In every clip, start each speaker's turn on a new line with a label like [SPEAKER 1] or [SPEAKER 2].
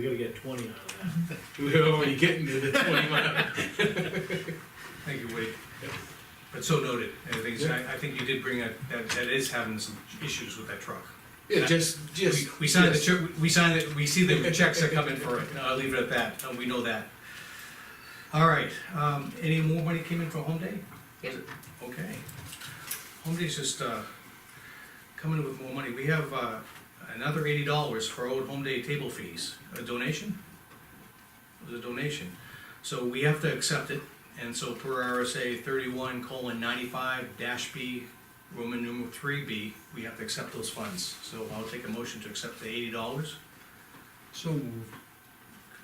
[SPEAKER 1] We gotta get twenty out of that.
[SPEAKER 2] We're already getting to the twenty mile.
[SPEAKER 3] Thank you, Wade. But so noted, and I think, it's- I I think you did bring up, that, that is having some issues with that truck.
[SPEAKER 2] Yeah, just,
[SPEAKER 3] We
[SPEAKER 2] just.
[SPEAKER 3] we signed the,
[SPEAKER 2] just-
[SPEAKER 3] check- we signed it, we see the checks that come in for it, I'll leave it at that, and we know that. All right, um, any more money came in for home day?
[SPEAKER 4] Yep.
[SPEAKER 3] Okay. Home day's just, uh, coming in with more money, we have, uh, another eighty dollars for old home day table fees, a donation? It was a donation, so we have to accept it, and so per RSA thirty-one colon ninety-five dash B, Roman numeral three B, we have to accept those funds, so I'll take a motion to accept the eighty dollars.
[SPEAKER 5] So moved.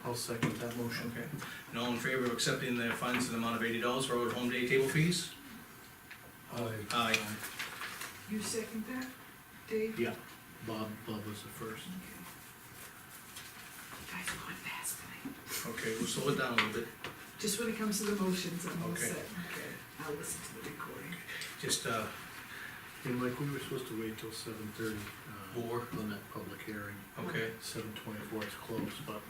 [SPEAKER 5] I'll second that motion.
[SPEAKER 3] Okay, and all in favor of accepting the funds in the amount of eighty dollars for our home day table fees?
[SPEAKER 1] Oh,
[SPEAKER 5] Aye.
[SPEAKER 3] Aye.
[SPEAKER 4] You second that, Dave?
[SPEAKER 1] Yeah, Bob, Bob was the first.
[SPEAKER 4] Okay. Guys, going fast tonight.
[SPEAKER 3] Okay, we'll slow it down a little bit,
[SPEAKER 4] Just when it comes to the motions, I'm all
[SPEAKER 3] Okay.
[SPEAKER 4] set. I'll listen to the recording.
[SPEAKER 3] just, uh,
[SPEAKER 1] And like, we were supposed to wait till seven thirty, uh,
[SPEAKER 3] Four.
[SPEAKER 1] on that public hearing.
[SPEAKER 3] okay,
[SPEAKER 1] Seven twenty-four is closed, but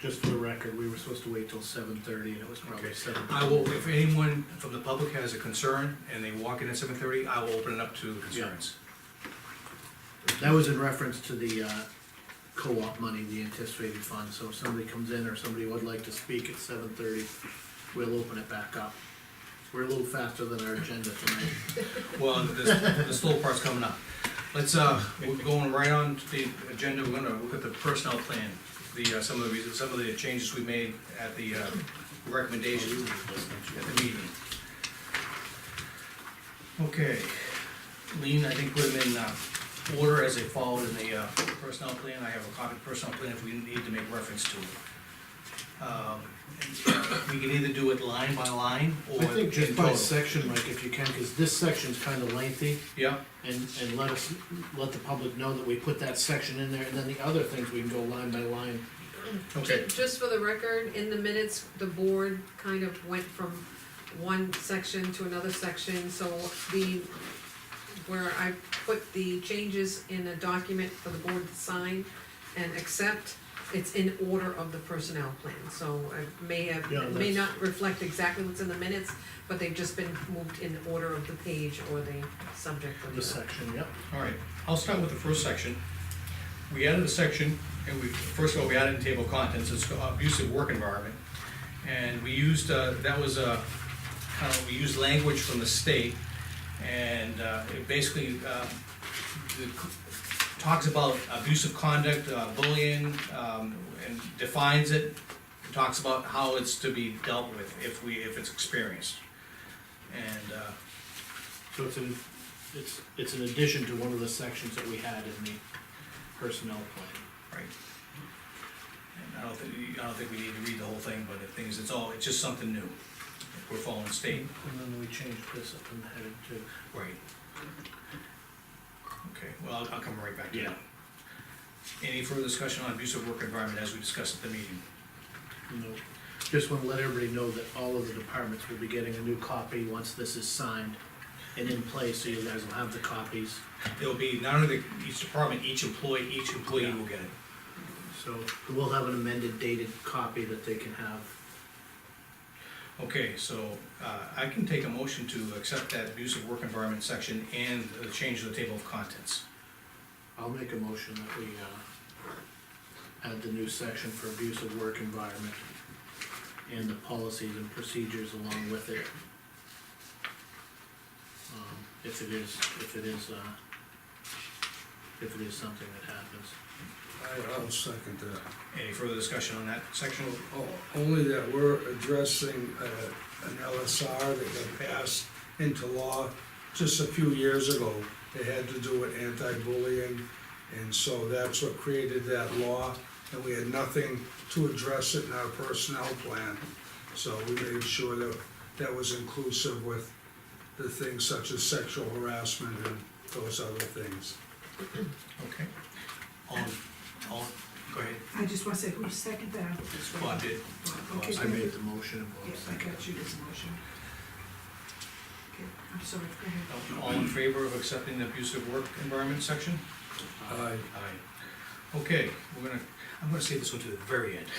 [SPEAKER 1] just for the record, we were supposed to wait till seven thirty and it was probably
[SPEAKER 3] Okay.
[SPEAKER 1] seven.
[SPEAKER 3] I will, if anyone from the public has a concern and they walk in at seven thirty, I will open it up to concerns.
[SPEAKER 1] That was in reference to the, uh, co-op money, the anticipated fund, so if somebody comes in or somebody would like to speak at seven thirty, we'll open it back up. We're a little faster than our agenda tonight.
[SPEAKER 3] Well, the, the slow part's coming up. Let's, uh, we're going right on to the agenda, we're gonna look at the personnel plan, the, uh, some of the, reasons- some of the changes we made at the, uh, recommendations at the meeting. Okay, Lean, I think put them in, uh, order as they followed in the, uh, personnel plan, I have a copy of the personnel plan if we need to make reference to it. Um, We can either do it line by line or.
[SPEAKER 1] I think
[SPEAKER 3] in
[SPEAKER 1] just by
[SPEAKER 3] total.
[SPEAKER 1] section, Mike, if you can, because this section's kind of lengthy,
[SPEAKER 3] Yeah,
[SPEAKER 1] and, and let us, let the public know that we put that section in there, and then the other things we can go line by line.
[SPEAKER 3] okay.
[SPEAKER 6] Ju- Just for the record, in the minutes, the board kind of went from one section to another section, so the, where I put the changes in a document for the board to sign and accept, it's in order of the personnel plan, so I may have,
[SPEAKER 1] Yeah,
[SPEAKER 6] it may
[SPEAKER 1] that's-
[SPEAKER 6] not reflect exactly what's in the minutes, but they've just been moved in order of the page or the subject of the.
[SPEAKER 1] The section, yep.
[SPEAKER 3] All right, I'll start with the first section. We added a section, and we, first of all, we added in table of contents, it's abusive work environment. And we used, uh, that was, uh, kind of, we used language from the state, and, uh, it basically, uh, the c- talks about abusive conduct, uh, bullying, um, and defines it, talks about how it's to be dealt with if we, if it's experienced. And, uh,
[SPEAKER 1] So it's an, it's, it's an addition to one of the sections that we had in the personnel plan.
[SPEAKER 3] Right. And I don't think, I don't think we need to read the whole thing, but the thing is, it's all, it's just something new. We're following state.
[SPEAKER 1] And then we changed this up and headed to.
[SPEAKER 3] Right. Okay, well, I'll- I'll come right back to
[SPEAKER 1] Yeah.
[SPEAKER 3] that. Any further discussion on abusive work environment as we discussed at the meeting?
[SPEAKER 1] you know, just wanna let everybody know that all of the departments will be getting a new copy once this is signed and in place, so you guys will have the copies.
[SPEAKER 3] It'll be not only the- each department, each employee, each employee will get it.
[SPEAKER 1] So we'll have an amended dated copy that they can have.
[SPEAKER 3] Okay, so, uh, I can take a motion to accept that abusive work environment section and the change of the table of contents.
[SPEAKER 1] I'll make a motion that we, uh, add the new section for abusive work environment and the policies and procedures along with it. Um, If it is, if it is, uh, if it is something that happens.
[SPEAKER 7] I, I'll second that.
[SPEAKER 3] Any further discussion on that section?
[SPEAKER 7] O- Only that we're addressing, uh, an LSR that got passed into law just a few years ago. It had to do with anti-bullying, and so that's what created that law, and we had nothing to address it in our personnel plan. So we made sure that that was inclusive with the things such as sexual harassment and those other things.
[SPEAKER 3] Okay. All, all, Um, go ahead.
[SPEAKER 4] I just wanna say, who seconded that?
[SPEAKER 3] Bob did.
[SPEAKER 4] Okay,
[SPEAKER 1] I made the motion and
[SPEAKER 4] Yeah,
[SPEAKER 1] Bob
[SPEAKER 4] I
[SPEAKER 1] seconded.
[SPEAKER 4] got you this motion. Okay, I'm sorry, go ahead.
[SPEAKER 3] All in favor of accepting the abusive work environment section?
[SPEAKER 7] Aye.
[SPEAKER 3] Aye. Okay, we're gonna, I'm gonna save this one to the very end.